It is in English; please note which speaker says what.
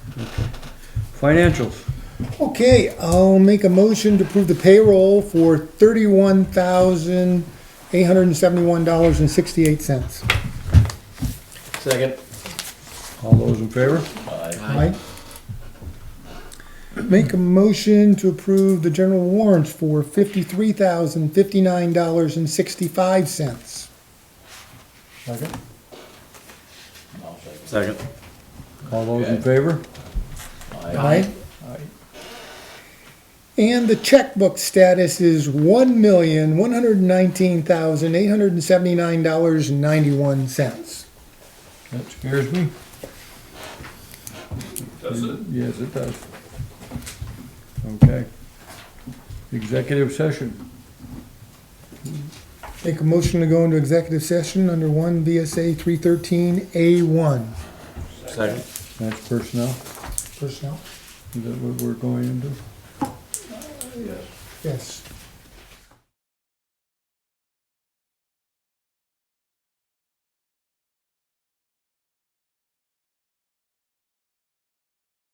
Speaker 1: Financials.
Speaker 2: Okay, I'll make a motion to approve the payroll for thirty-one thousand, eight hundred and seventy-one dollars and sixty-eight cents.
Speaker 3: Second.
Speaker 1: All those in favor?
Speaker 2: Aye. Make a motion to approve the general warrants for fifty-three thousand, fifty-nine dollars and sixty-five cents.
Speaker 1: Second. Second. All those in favor?
Speaker 2: Aye. And the checkbook status is one million, one hundred and nineteen thousand, eight hundred and seventy-nine dollars and ninety-one cents.
Speaker 1: That scares me.
Speaker 4: Does it?
Speaker 1: Yes, it does. Okay. Executive session.
Speaker 2: Make a motion to go into executive session under one VSA three thirteen A one.
Speaker 3: Second.
Speaker 1: That's personnel.
Speaker 2: Personnel?
Speaker 1: Is that what we're going into?
Speaker 2: Yes.